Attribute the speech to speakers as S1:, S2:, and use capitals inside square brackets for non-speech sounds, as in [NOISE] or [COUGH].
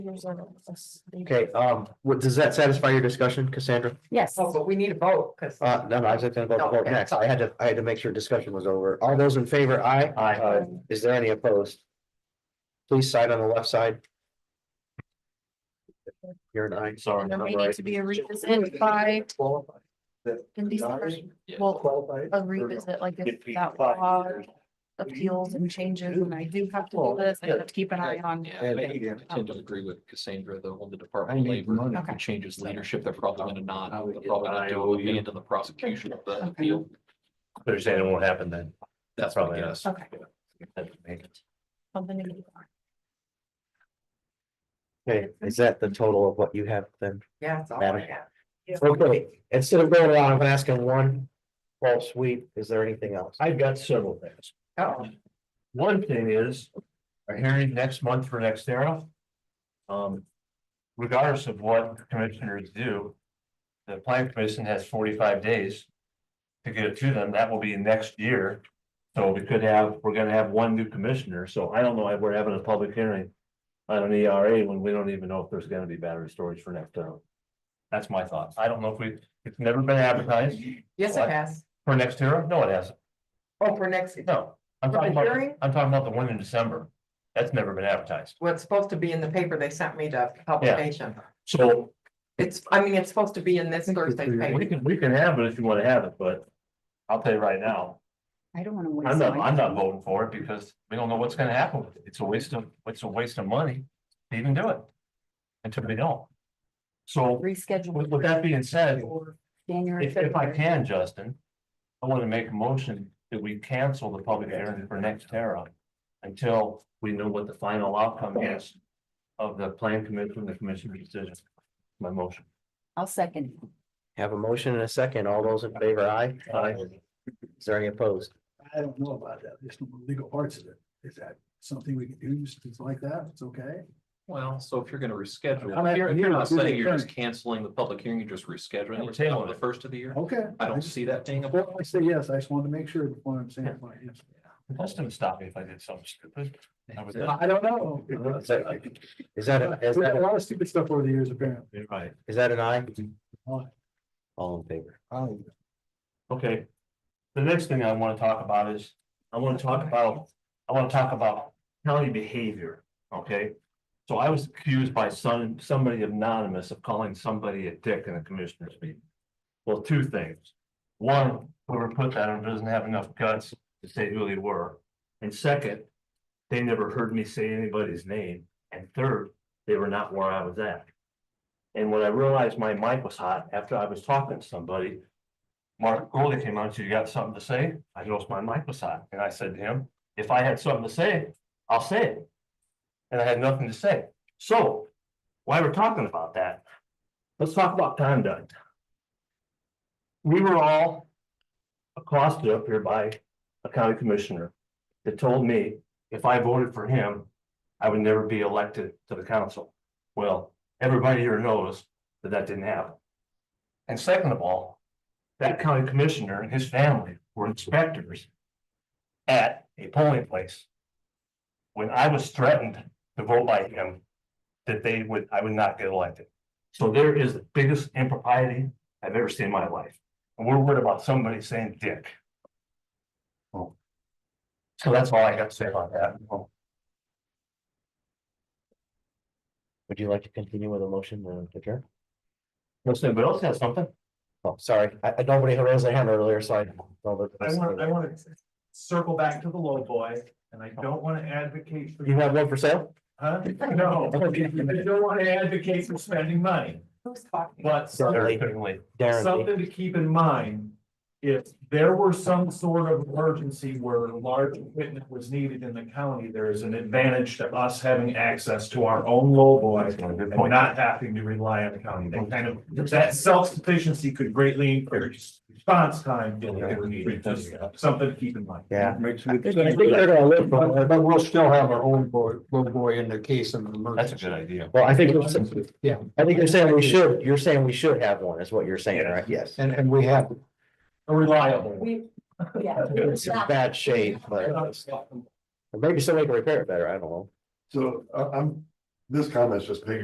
S1: Okay, um, what, does that satisfy your discussion, Cassandra?
S2: Yes,
S3: Oh, but we need a vote, because.
S1: Uh, no, no, I was just gonna go
S3: No,
S1: vote
S3: okay.
S1: next. I had to, I had to make sure discussion was over. All those in favor, aye? Aye. Is there any opposed? Please sign on the left side. You're an aye, sorry.
S2: there
S1: I'm
S2: may
S1: right.
S2: need to be a revisit by, in December. well, a revisit like if that law appeals and changes, and I do have to do this, I have to keep an eye on.
S1: Yeah.
S4: I tend to agree with Cassandra, though, on the Department of Labor, if
S2: Okay.
S4: it changes leadership, they're probably gonna not, they're probably not do it would be into the prosecution of the
S2: Okay.
S4: appeal.
S5: They're saying it won't happen then.
S4: That's my
S5: Probably not.
S4: guess.
S2: Okay. something to keep an
S1: Okay, is that the total of what you have then?
S3: Yeah, it's all
S1: Madam.
S3: I have.
S1: Okay, instead of going around, I'm asking one false sweep, is there anything else?
S5: I've got several things.
S3: Uh-oh.
S5: One thing is, our hearing next month for next era. Um, regardless of what commissioners do, the planning commission has forty-five days to get it to them. That will be next year. So we could have, we're gonna have one new commissioner, so I don't know if we're having a public hearing on an ERA when we don't even know if there's gonna be battery storage for next term. That's my thoughts. I don't know if we, it's never been advertised
S3: Yes, it has.
S5: for next era. No, it hasn't.
S3: Oh, for next,
S5: No, I'm
S3: For
S5: talking
S3: the
S5: about,
S3: hearing?
S5: I'm talking about the one in December. That's never been advertised.
S3: well, it's supposed to be in the paper they sent me to publication.
S5: So
S3: It's, I mean, it's supposed to be in this Thursday's
S5: we
S3: paper.
S5: can, we can have it if you want to have it, but I'll tell you right now,
S2: I don't wanna waste.
S5: I'm not, I'm not voting for it because we don't know what's gonna happen. with it. It's a waste of, it's a waste of money to even do it. Until we don't. So with, with
S2: Reschedule
S5: that being said,
S2: for January.
S5: if, if I
S2: February.
S5: can, Justin, I want to make a motion that we cancel the public hearing for next Terra until we know what the final outcome is of the plan commission, and the commissioner's decision. My motion.
S2: I'll second.
S1: Have a motion and a second, all those in favor, aye?
S5: Aye.
S1: Is there any opposed?
S6: I don't know about that. There's no legal parts of it. Is that something we can do, just things like that? It's okay.
S4: Well, so if you're gonna reschedule,
S6: I'm
S4: if you're, if you're
S6: here
S4: not
S6: to do the
S4: saying you're just
S6: hearing.
S4: canceling the public hearing, you're just rescheduling
S5: We're
S4: it till
S5: tailing
S4: the
S5: it.
S4: first of the year.
S6: Okay.
S4: I don't see that being a.
S6: Well, I say yes. I just wanted to make sure before I'm saying it. Yes.
S5: Justin, stop me if I did something stupid. I was-
S6: I I don't know.
S1: [LAUGHS] Is that, is that, a- is
S6: We've had a
S1: that,
S6: lot of stupid stuff over the years, apparently.
S5: You're Right,
S1: is that an aye?
S6: Aye.
S1: All in favor?
S5: okay. The next thing I want to talk about is, I want to talk about, I want to talk about county behavior, okay? So I was accused by some, somebody anonymous of calling somebody a dick in a commissioners meeting. Well, two things. One, whoever put that on doesn't have enough guts to say who they were. And second, they never heard me say anybody's name. And third, they were not where I was at. And when I realized my mic was hot after I was talking to somebody, Mark Goldie came on, and said, you got something to say? I noticed my mic was hot. And I said to him, if I had something to say, I'll say it. And I had nothing to say. So while we're talking about that, let's talk about conduct we were all accosted up here by a county commissioner that told me if I voted for him, I would never be elected to the council. Well, everybody here knows that that didn't happen. And second of all, that county commissioner and his family were inspectors at a polling place. When I was threatened to vote by him, that they would, I would not get elected. So there is the biggest impropriety I've ever seen in my life. And we're worried about somebody saying dick. So that's all I got to say about that.
S1: Would you like to continue with a motion to adjourn?
S5: Unless anybody else has something.
S1: Oh, sorry, I, I, nobody raised their hand earlier, so I.
S7: I want, I want to circle back to the low boy, and I don't want to advocate for,
S1: You have one for sale?
S7: huh? No, I don't want to advocate for spending money,
S3: Who's talking?
S7: but
S1: Certainly.
S5: Certainly.
S1: Darren, Lee.
S7: something to keep in mind. If there were some sort of emergency where large equipment was needed in the county, there is an advantage to us having access to our own low boy
S5: Good
S7: and
S5: point.
S7: not having to rely on the county. That kind of, that self-sufficiency could greatly increase response time. if it were needed. Just Something to keep in mind.
S1: yeah.
S6: I
S1: I think they're gonna live for it.
S6: But we'll still have our own boy, little boy in the case of an
S5: That's a
S6: emergency.
S5: good idea.
S1: Well, I think, it's-
S6: Yeah,
S1: I think you're saying we should, you're saying we should have one, is what you're saying, right? Yes.
S6: and, and we have.
S7: A reliable. one.
S3: We,
S2: Yeah.
S1: It's in bad shape, but or maybe somebody can repair it better, I don't know.
S6: So I, I'm, this comment's just piggy